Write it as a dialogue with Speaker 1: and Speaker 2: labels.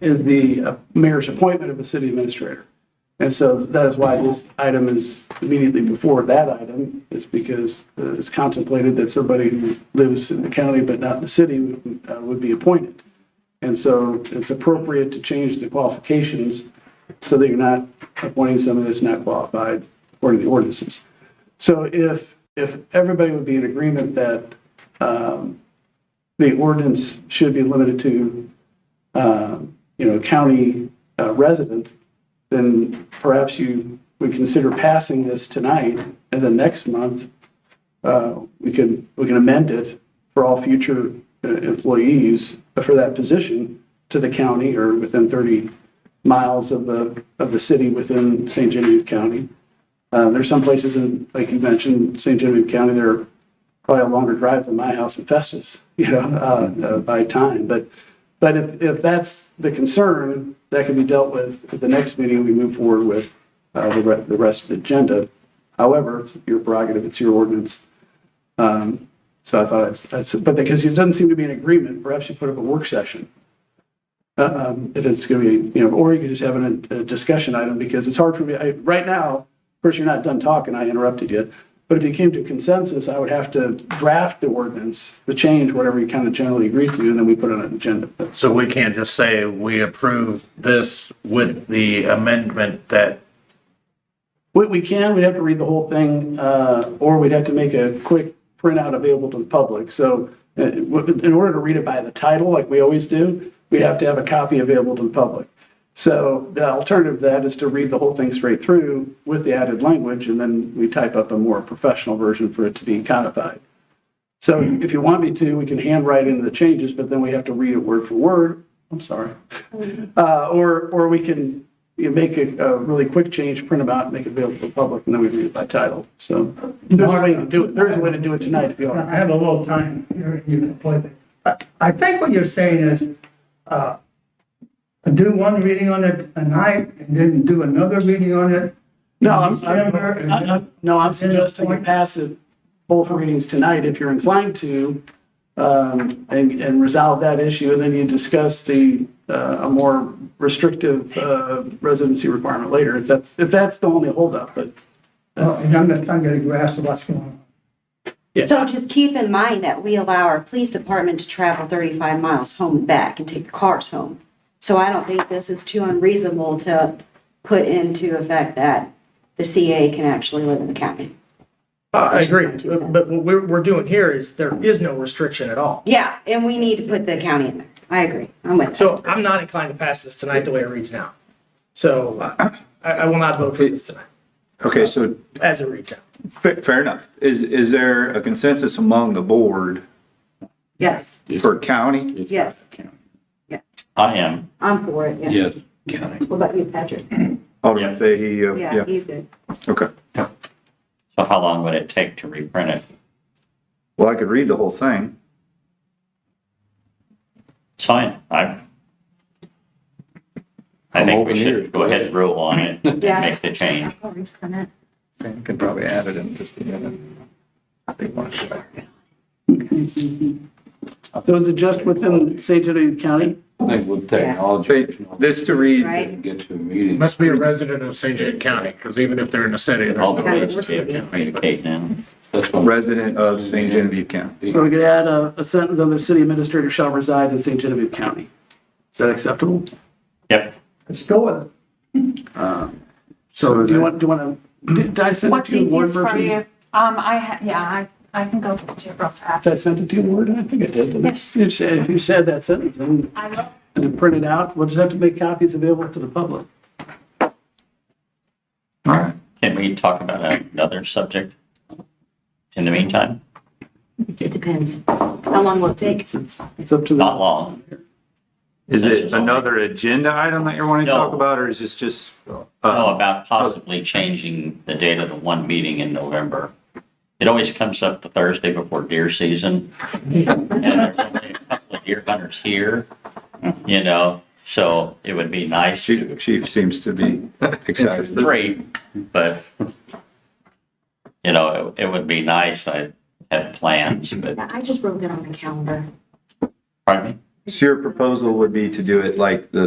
Speaker 1: is the uh, mayor's appointment of a city administrator. And so that is why this item is immediately before that item, is because uh, it's contemplated that somebody who lives in the county but not in the city would uh, would be appointed. And so it's appropriate to change the qualifications so that you're not appointing someone that's not qualified according to the ordinances. So if, if everybody would be in agreement that um, the ordinance should be limited to, um, you know, county uh, resident, then perhaps you would consider passing this tonight, and then next month, uh, we can, we can amend it for all future uh, employees for that position to the county or within 30 miles of the, of the city within St. Genevieve County. Uh, There's some places in, like you mentioned, St. Genevieve County, they're probably a longer drive than my house in Festus, you know, uh, uh, by time. But, but if, if that's the concern, that can be dealt with at the next meeting, we move forward with uh, the re- the rest of the agenda. However, it's your prerogative, it's your ordinance. Um, So I thought, it's- that's- but because it doesn't seem to be an agreement, perhaps you put up a work session. Uh, um, If it's going to be, you know, or you could just have an- a discussion item because it's hard for me, I- right now, of course, you're not done talking, I interrupted you. But if you came to consensus, I would have to draft the ordinance, the change, whatever you kind of generally agree to, and then we put it on an agenda.
Speaker 2: So we can't just say we approve this with the amendment that,
Speaker 1: We, we can, we'd have to read the whole thing, uh, or we'd have to make a quick printout available to the public. So uh, w- in order to read it by the title, like we always do, we'd have to have a copy available to the public. So the alternative to that is to read the whole thing straight through with the added language, and then we type up a more professional version for it to be codified. So if you want me to, we can handwrite in the changes, but then we have to read it word for word. I'm sorry. Uh, or, or we can, you know, make a, a really quick change, print them out, make it available to the public, and then we read it by title. So there's a way to do it. There is a way to do it tonight if you
Speaker 3: I
Speaker 1: want.
Speaker 3: have a little time here, you can play that. I, I think what you're saying is, uh, do one reading on it tonight, and then do another reading on it. in
Speaker 1: No, I'm,
Speaker 3: December,
Speaker 1: I'm,
Speaker 3: and
Speaker 1: I- I-
Speaker 3: then-
Speaker 1: no, I'm suggesting you pass it, both readings tonight if you're inclined to, um, and, and resolve that issue, and then you discuss the, uh, a more restrictive, uh, residency requirement later, if that's, if that's the only holdup, but.
Speaker 3: Oh, And I'm not, I'm getting grasp of what's going on.
Speaker 1: Yeah.
Speaker 4: So just keep in mind that we allow our police department to travel 35 miles home and back and take cars home. So I don't think this is too unreasonable to put into effect that the CA can actually live in the county.
Speaker 5: I
Speaker 4: Which is
Speaker 5: agree,
Speaker 4: my two cents.
Speaker 5: but what we're, we're doing here is there is no restriction at all.
Speaker 4: Yeah, and we need to put the county in there. I agree. I'm with that.
Speaker 5: So I'm not inclined to pass this tonight the way it reads now. So I, I will not vote for this tonight,
Speaker 6: Okay, so
Speaker 5: as it reads now.
Speaker 6: fa- fair enough. Is, is there a consensus among the board
Speaker 4: Yes,
Speaker 6: for county?
Speaker 4: yes,
Speaker 7: I am.
Speaker 4: I'm for it, yeah.
Speaker 7: Yes. County.
Speaker 4: What about you, Patrick?
Speaker 6: Alderman Fahey, uh,
Speaker 4: Yeah,
Speaker 6: yeah,
Speaker 4: he's good.
Speaker 6: okay.
Speaker 7: So how long would it take to reprint it?
Speaker 6: Well, I could read the whole thing.
Speaker 7: Sign, I. I think we should go ahead and rule on it and
Speaker 4: Yeah.
Speaker 7: make the change.
Speaker 6: You can probably add it in just a minute. I think one of these-
Speaker 1: So is it just within St. Genevieve County?
Speaker 8: I think with technology.
Speaker 6: Say, This to read,
Speaker 4: Right?
Speaker 8: Get to a meeting.
Speaker 2: must be a resident of St. John County, because even if they're in the city, there's
Speaker 7: All the
Speaker 2: no
Speaker 7: ways
Speaker 2: resident.
Speaker 7: to be able to communicate now.
Speaker 8: That's what-
Speaker 6: resident of St. Genevieve County.
Speaker 1: So we could add a, a sentence, other city administrator shall reside in St. Genevieve County. Is that acceptable?
Speaker 7: Yep,
Speaker 3: Let's go with it.
Speaker 1: So do you want, do you want to, did did I send it
Speaker 9: What's
Speaker 1: to you in Word
Speaker 9: easiest for you?
Speaker 1: version?
Speaker 9: Um, I, ha- yeah, I, I can go to real fast.
Speaker 1: Did I send it to you in Word? I think I did. Yes. If you said that sentence and
Speaker 9: I will,
Speaker 1: and then print it out, we'll just have to make copies available to the public.
Speaker 6: All right.
Speaker 7: can we talk about another subject in the meantime?
Speaker 4: It depends. How long will it take?
Speaker 1: It's it's up to
Speaker 7: Not
Speaker 1: the,
Speaker 7: long.
Speaker 6: Is it another agenda item that you're wanting to talk about, or is this just? uh, Um,
Speaker 7: Oh, about possibly changing the date of the one meeting in November. It always comes up the Thursday before deer season. And there's only a couple of deer hunters here, you know, so it would be nice to
Speaker 6: Chief Chief seems to be excited.
Speaker 7: great, but, you know, it it would be nice. I had plans, but,
Speaker 4: I just wrote it on the calendar.
Speaker 7: pardon me?
Speaker 6: So your proposal would be to do it like the